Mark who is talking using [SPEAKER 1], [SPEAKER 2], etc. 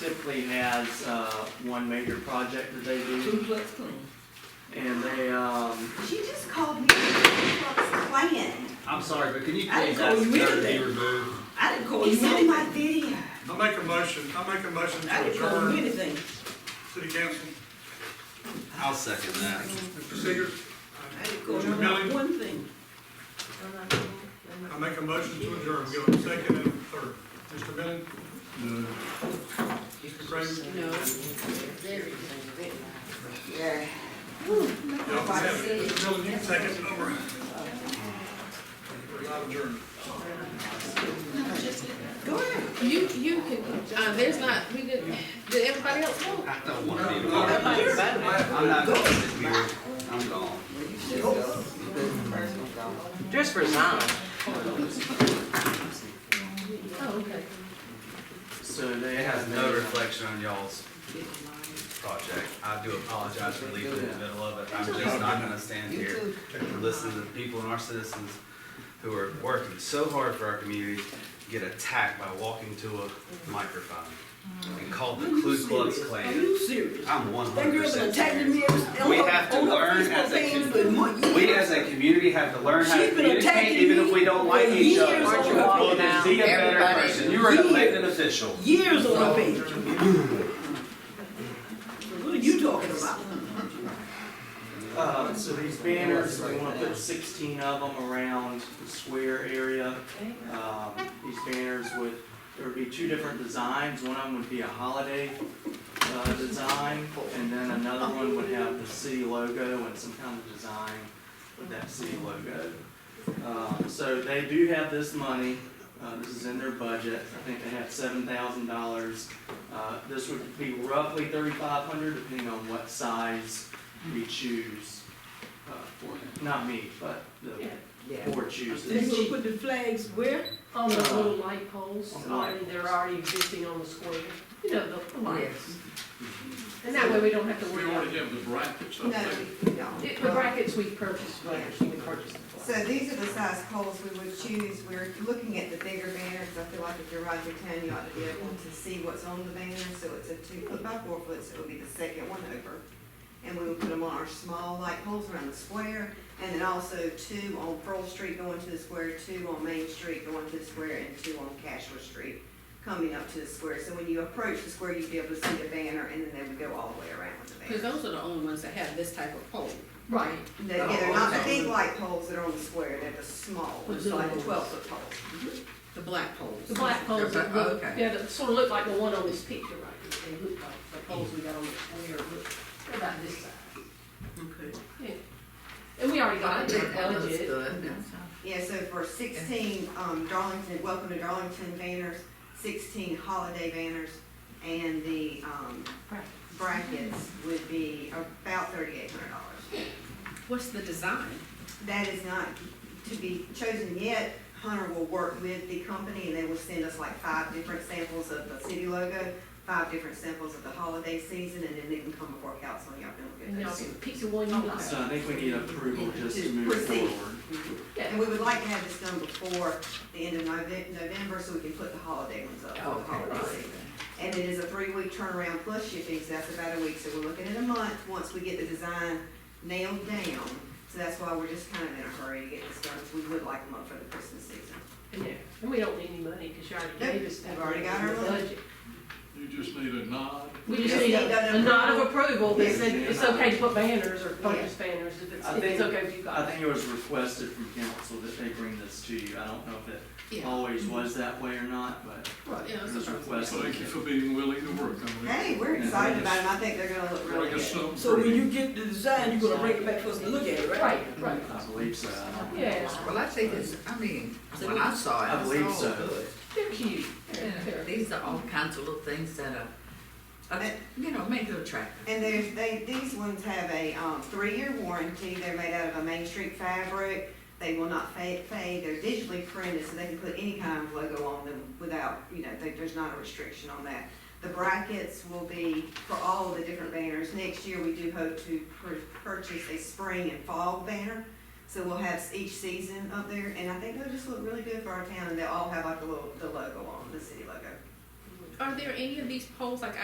[SPEAKER 1] typically has, uh, one major project that they do,
[SPEAKER 2] Duplex clean.
[SPEAKER 1] and they, um,
[SPEAKER 3] She just called me a Ku Klux Klan.
[SPEAKER 4] I'm sorry, but can you
[SPEAKER 2] I didn't
[SPEAKER 4] please ask
[SPEAKER 2] call
[SPEAKER 4] the
[SPEAKER 2] you
[SPEAKER 4] clerk to be
[SPEAKER 2] anything.
[SPEAKER 4] removed?
[SPEAKER 2] I didn't call you
[SPEAKER 3] It's on my
[SPEAKER 2] anything.
[SPEAKER 3] video.
[SPEAKER 5] I make a motion, I make a motion
[SPEAKER 2] I
[SPEAKER 5] to
[SPEAKER 2] didn't call you
[SPEAKER 5] adjourn
[SPEAKER 2] anything.
[SPEAKER 5] city council.
[SPEAKER 6] I'll second that.
[SPEAKER 5] Mr. Seeger,
[SPEAKER 2] I didn't call
[SPEAKER 5] Mr. Millie?
[SPEAKER 2] you one thing.
[SPEAKER 5] I make a motion to adjourn. We go second and third. Mr. Bennett? Mr. Craig? No.
[SPEAKER 3] Yeah.
[SPEAKER 5] Y'all can have it. Mr. Dillon, you can second. All right. We're not adjourned.
[SPEAKER 2] Go ahead.
[SPEAKER 7] You, you can, uh, there's not, we did, did everybody else vote?
[SPEAKER 6] I don't want to be a part of this. I'm not going to be here. I'm gone.
[SPEAKER 8] Just resign.
[SPEAKER 7] Oh, okay.
[SPEAKER 1] so they
[SPEAKER 6] It has
[SPEAKER 1] have.
[SPEAKER 6] no reflection on y'all's project. I do apologize for leaving in the middle of it. I'm just not gonna stand here and listen to the people and our citizens who are working so hard for our community get attacked by walking to a microphone and called the Ku Klux
[SPEAKER 2] Are
[SPEAKER 6] Klan.
[SPEAKER 2] you serious?
[SPEAKER 6] I'm one
[SPEAKER 2] That
[SPEAKER 6] hundred
[SPEAKER 2] girl's been
[SPEAKER 6] percent
[SPEAKER 2] attacking
[SPEAKER 6] serious.
[SPEAKER 2] me. on-
[SPEAKER 6] We have to
[SPEAKER 2] on her
[SPEAKER 6] learn
[SPEAKER 2] Facebook
[SPEAKER 6] as a
[SPEAKER 2] page
[SPEAKER 6] com-
[SPEAKER 2] for months.
[SPEAKER 6] We as a community have to learn how to
[SPEAKER 2] She's been attacking
[SPEAKER 6] communicate even if we
[SPEAKER 2] me
[SPEAKER 6] don't like
[SPEAKER 2] for
[SPEAKER 6] each other.
[SPEAKER 2] years
[SPEAKER 8] Aren't you
[SPEAKER 2] on her
[SPEAKER 8] walking
[SPEAKER 6] Well, then
[SPEAKER 8] now?
[SPEAKER 6] be a better
[SPEAKER 8] Everybody-
[SPEAKER 6] person. You are an elected official.
[SPEAKER 2] Years on her page. What are you talking about?
[SPEAKER 1] Uh, so these banners, we wanna put sixteen of them around the square area. Um, these banners would, there would be two different designs, one of them would be a holiday, uh, design, and then another one would have the city logo and some kind of design with that city logo. Um, so they do have this money, uh, this is in their budget, I think they have seven thousand dollars. Uh, this would be roughly thirty-five hundred, depending on what size we choose, uh, for, not me, but the board
[SPEAKER 2] They
[SPEAKER 1] chooses.
[SPEAKER 2] gonna put the flags where?
[SPEAKER 9] On the little light poles,
[SPEAKER 1] On the light
[SPEAKER 9] already, they're already existing on the square, you know, the lights. And that way we don't have to worry about,
[SPEAKER 5] have the brackets
[SPEAKER 3] No, we
[SPEAKER 9] It-
[SPEAKER 3] don't.
[SPEAKER 9] the brackets we purchased, right, we purchased. the
[SPEAKER 3] So
[SPEAKER 9] flags.
[SPEAKER 3] these are the size poles we would choose. We're looking at the bigger banners. I feel like if you're Roger Town, you ought to be able to see what's on the banner. So it's a two foot by four foot, so it would be the second one over. And we would put them on our small light poles around the square. And then also two on Pearl Street going to the square, two on Main Street going to the square, and two on Cashler Street coming up to the square. So when you approach the square, you'd be able to see the banner and then they would go all the way around with the
[SPEAKER 7] Cause
[SPEAKER 3] banner.
[SPEAKER 7] those are the only ones that have this type of pole.
[SPEAKER 9] Right,
[SPEAKER 3] They- Yeah, they're not the big light poles that are on the square, they're the small,
[SPEAKER 9] The
[SPEAKER 3] ones, like the
[SPEAKER 9] little
[SPEAKER 3] twelve foot poles.
[SPEAKER 7] The black poles.
[SPEAKER 9] the black poles
[SPEAKER 7] They're
[SPEAKER 9] that
[SPEAKER 7] bu- oh,
[SPEAKER 9] look,
[SPEAKER 7] Okay.
[SPEAKER 9] yeah, that sort of look like the one on this picture, right, they look like the poles we got on the square, look, they're about this size.
[SPEAKER 2] Okay.
[SPEAKER 9] Yeah. And we already got it, in the
[SPEAKER 7] That looks
[SPEAKER 9] budget,
[SPEAKER 7] good.
[SPEAKER 3] Yeah, so for sixteen, um, Darlington, welcome to Darlington banners, sixteen holiday banners, and the, um, brackets would be about thirty-eight hundred dollars.
[SPEAKER 7] What's the design?
[SPEAKER 3] That is not to be chosen yet. Hunter will work with the company and they will send us like five different samples of the city logo, five different samples of the holiday season, and then they can come before council and y'all can
[SPEAKER 9] and
[SPEAKER 3] look
[SPEAKER 9] y'all
[SPEAKER 3] at those.
[SPEAKER 9] can pick the one you like.
[SPEAKER 1] So I think we need approval just to move
[SPEAKER 3] Proceed.
[SPEAKER 1] forward.
[SPEAKER 3] And we would like to have this done before the end of Nove- November, so we can put the holiday ones up for the holiday season. And it is a three-week turnaround plus shipping, so that's about a week, so we're looking at a month, once we get the design nailed down. So that's why we're just kind of in a hurry to get this done, 'cause we would like them up for the Christmas season.
[SPEAKER 9] And yeah, and we don't need any money, because you already gave us that.
[SPEAKER 3] We've already got our
[SPEAKER 9] in the
[SPEAKER 3] money.
[SPEAKER 9] budget.
[SPEAKER 5] You just need a nod.
[SPEAKER 9] We just need a a nod of approval that said it's okay to put banners or purchase banners if it's,
[SPEAKER 1] I
[SPEAKER 9] if it's
[SPEAKER 1] think-
[SPEAKER 9] okay if you
[SPEAKER 1] I
[SPEAKER 9] got it.
[SPEAKER 1] think it was requested from council that they bring this to you. I don't know if it
[SPEAKER 7] Yeah.
[SPEAKER 1] always was that way or not, but
[SPEAKER 9] Right.
[SPEAKER 7] Yeah,
[SPEAKER 1] it
[SPEAKER 7] that's
[SPEAKER 1] was
[SPEAKER 7] what I'm-
[SPEAKER 1] requested.
[SPEAKER 5] being willing to work on
[SPEAKER 3] Hey, we're excited about them, I think they're gonna look really good.
[SPEAKER 2] So when you get the design, you're gonna bring it back for us to look at it, right?
[SPEAKER 9] Right, right,
[SPEAKER 1] I believe so. I don't-
[SPEAKER 9] yeah,
[SPEAKER 8] Well, I think it's, I mean, when I saw it,
[SPEAKER 1] I
[SPEAKER 8] I
[SPEAKER 1] believe
[SPEAKER 8] was all
[SPEAKER 1] so.
[SPEAKER 8] good.
[SPEAKER 9] they're cute. They're-
[SPEAKER 8] Yeah,
[SPEAKER 9] they're-
[SPEAKER 8] These are all kinds of little things that are, uh, that, you know, make it attractive.
[SPEAKER 3] And there's, they, these ones have a, um, three-year warranty, they're made out of a Main Street fabric, they will not fade, fade, they're digitally printed, so they can put any kind of logo on them without, you know, there- there's not a restriction on that. The brackets will be for all of the different banners, next year we do hope to pur- purchase a spring and fall banner, so we'll have each season up there, and I think they'll just look really good for our town, and they'll all have like a little, the logo on, the city logo.
[SPEAKER 8] are there any of these poles like